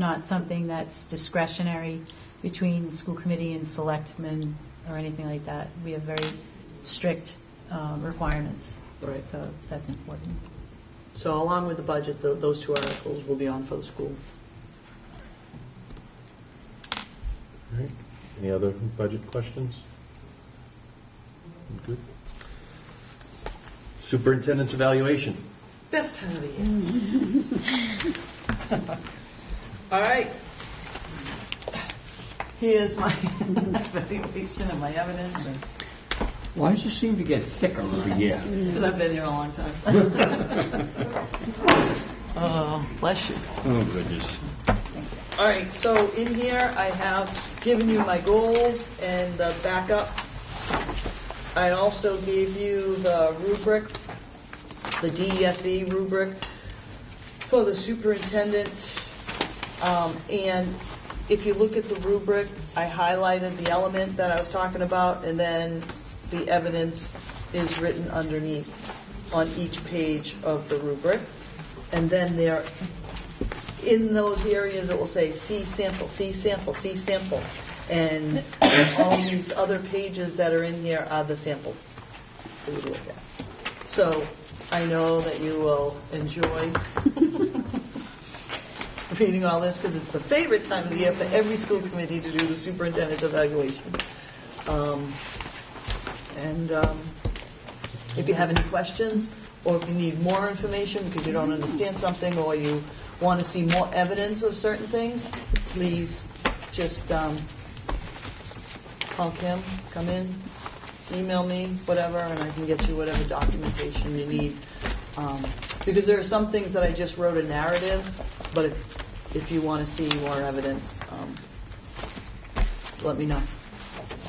not something that's discretionary between school committee and selectmen or anything like that. We have very strict um, requirements. Right. So that's important. So along with the budget, tho- those two articles will be on for the school. Alright. Any other budget questions? Good. Superintendent's evaluation. Best time of the year. All right. Here's my evaluation and my evidence, Why does it seem to get thicker every year? because I've been here a long time. Oh, bless you. Oh, goodness. All right, so in here, I have given you my goals and the backup. I also gave you the rubric, the DESE E rubric for the superintendent. Um, And if you look at the rubric, I highlighted the element that I was talking about, and then the evidence is written underneath on each page of the rubric. And then there in those areas it will say C sample, C sample, C sample. And all these other pages that are in here are the samples that you look at. So I know that you will enjoy reading all this because it's the favorite time of the year for every school committee to do the superintendent's evaluation. Um, And um, if you have any questions, or if you need more information because you don't understand something, or you want to see more evidence of certain things, please just um, call Kim, come in, email me, whatever, and I can get you whatever documentation you need. Um, Because there are some things that I just wrote a narrative, but if, if you want to see more evidence, um, let me know.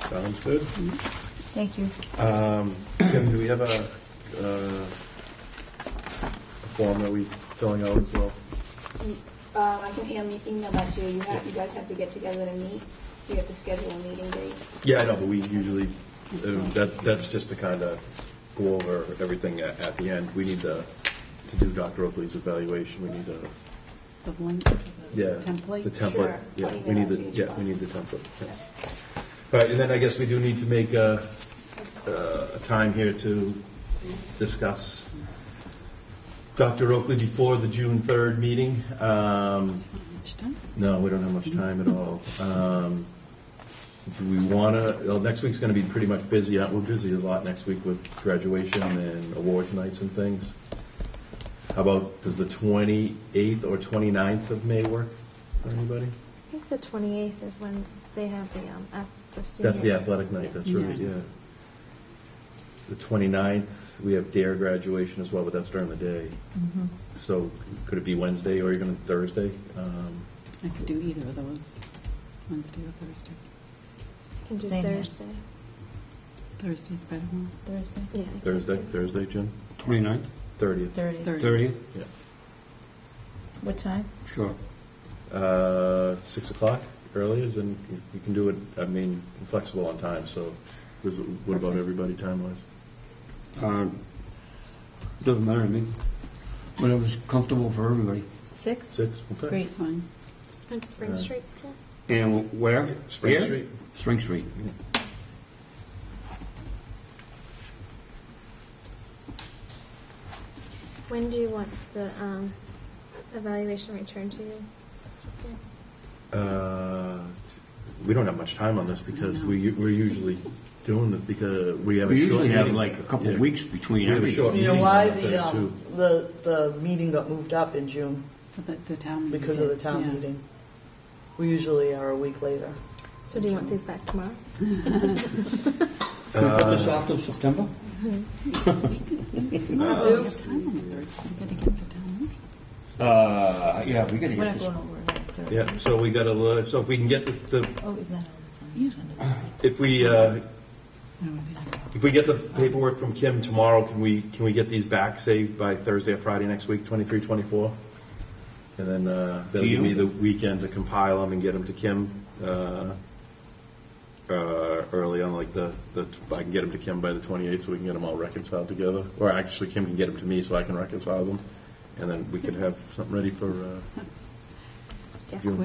Sounds good. Thank you. Um, Kim, do we have a, uh, a form that we filling out as well? Um, I can email, email that to you. You have, you guys have to get together to meet, so you have to schedule a meeting date. Yeah, I know, but we usually, uh, that, that's just to kind of go over everything at, at the end. We need to, to do Dr. Oakley's evaluation, we need to, The link, yeah. The template? template, Sure. yeah, I'll we need email the, it to you as yeah, well. we need the template, yeah. All right, and then I guess we do need to make a, uh, a time here to discuss Dr. Oakley before the June 3rd meeting. Um, It's done. no, we don't have much time at all. Um, Do we want to, well, next week's going to be pretty much busy, Uh, we're busy a lot next week with graduation and awards nights and things. How about, does the 28th or 29th of May work for anybody? I think the 28th is when they have the, um, at the senior. That's the athletic night, that's right, Yeah. yeah. The 29th, we have DARE E graduation as well, but that's during the day. Mm-hmm. So could it be Wednesday or even Thursday? Um, I could do either of those, Wednesday or Thursday. I can do Same here. Thursday. Thursday's better, huh? Thursday? Yeah. I can Thursday, do- Thursday, Jim? 29th, 30th? 30. Thirty. 30th? Yeah. What time? Sure. Uh, six o'clock earlier, then you- you can do it, I mean, I'm flexible on time, so does- what about everybody time-wise? Um, Doesn't matter to me. When it was comfortable for everybody. Six? Six, okay. Great. It's fine. At Spring Yeah. Street School? And where? Spring Here? Street. Spring Street. When do you want the, um, evaluation returned to you? Uh, We don't have much time on this because we, we're usually doing this because we have a We short usually have meeting. like a couple Yeah. of weeks between We have a short everything. You know meeting why on the the, third, um, too. the, the meeting got moved up in June? But The, the town meeting. Because of the town Yeah. meeting. We usually are a week later. So do you want these back tomorrow? Can we put this off till September? We don't really have time on the third, so we gotta get to town meeting. Uh, yeah, we gotta We're get not this. going over that Thursday. Yeah, so we got to, so if we can get the- the, Oh, is that, it's on the Yeah. agenda. if we, uh, No, it is. if we get the paperwork from Kim tomorrow, can we, can we get these back, say, by Thursday or Friday next week, 23, 24? And then uh, that'll To give you? me the weekend to compile them and get them to Kim uh, uh, early on, like the, the I can get them to Kim by the 28th, so we can get them all reconciled together. Or actually, Kim can get them to me, so I can reconcile them, and then we could have something ready for uh, That's- Yes. June